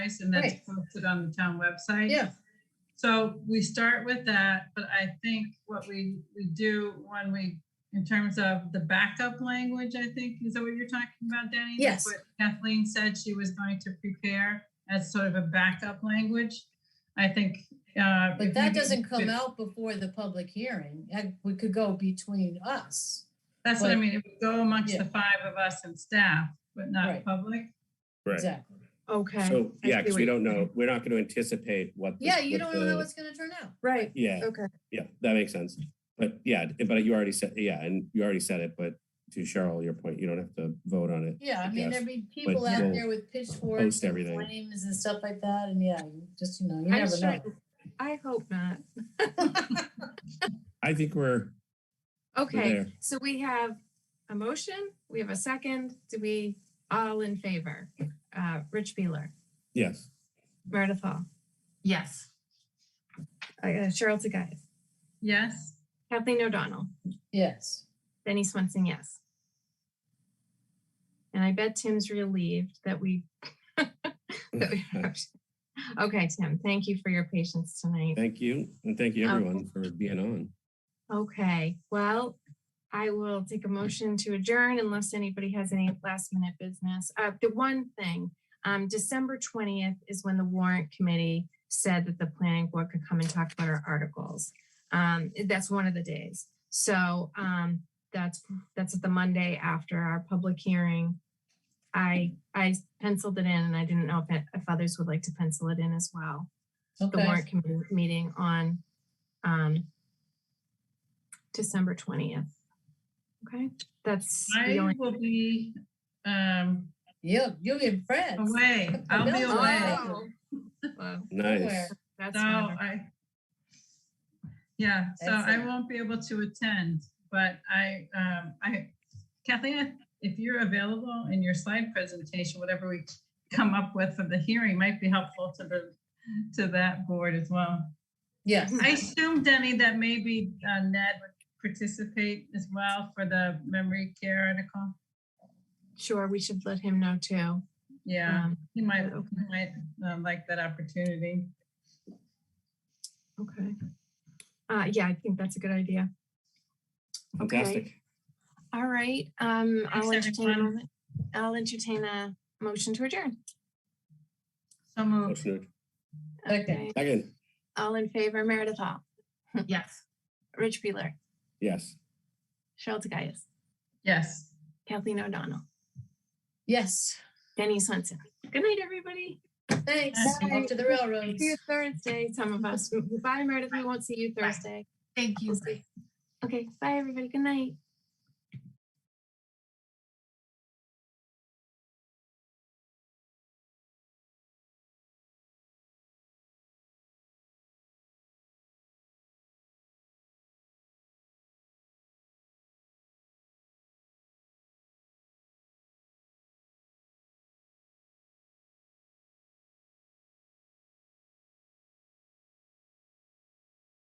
price and that's Right. posted on the town website. Yeah. So we start with that, but I think what we, we do when we, in terms of the backup language, I think, is that what you're talking about, Danny? That's Yes. what Kathleen said she was going to prepare as sort of a backup language. I think. uh, if But that we- doesn't come if- out before the public hearing. That- We could go between us. That's what I but- mean. It would go amongst Yeah. the five of us and staff, but not Right. public. Right. Exactly. Okay, So, I yeah, see because we what you're don't know, saying. we're not going to anticipate what. the- Yeah, you what don't know the- what's gonna turn out. right, Yeah, okay. yeah, that makes sense. But yeah, but you already said, yeah, and you already said it, but to Cheryl, your point, you don't have to vote on it. Yeah, I mean, guess, there'd be people you out don't there with pitchforks and everything. flames and stuff like that, and yeah, you just, you know, you I'm never sure- know. I hope not. I think we're, Okay, there. so we have a motion, we have a second. Do we all in favor? Uh, Rich Beeler, yes, Meredith Hall, Yes. uh, Cheryl Tagayas, Yes? Kathleen O'Donnell, Yes. Benny Swenson, yes. And I bet Tim's relieved that we. that we- Okay, Tim, thank you for your patience tonight. thank you. And thank you Um, everyone oh. for being on. Okay, well, I will take a motion to adjourn unless anybody has any last minute business. Uh, the one thing, um, December twentieth is when the warrant committee said that the planning board could come and talk about our articles. Um, that's one of the days. So, um, that's, that's the Monday after our public hearing. I, I penciled it in and I didn't know if, if others would like to pencil it in as well the Okay. warrant committee meeting on um December twentieth. Okay, that's the I only, will be um, You, you and friends. away. I'll be Wow. away. Wow, Nice. Somewhere. that's So uh, wonderful. I, yeah, so I Excellent. won't be able to attend, but I, um, I, Kathleen, if you're available in your slide presentation, whatever we come up with for the hearing might be helpful to the, to that board as well. Yes. Hmm. I assume, Denny, that maybe uh, Ned would participate as well for the memory care article. Sure, we should let him know too. Yeah, Um, he might, okay. he might uh, like that opportunity. Okay. Uh, yeah, I think that's a good idea. Fantastic. All right, um, I'll Thanks, entertain, a everyone. moment- I'll entertain a motion to adjourn. So moved. Motion Okay. to- Okay, Oh, Second, all in favor, Meredith Hall, Yes. Rich Beeler, yes. Cheryl Tagayas, Yes. Kathleen O'Donnell, Yes, Denny Swenson. Good night, everybody. thanks. Bye. Off to the railroads. See you Thursday, some of us. Bye, Meredith. We won't see you Thursday. Thank you. We'll see. Okay, bye, everybody. Good night.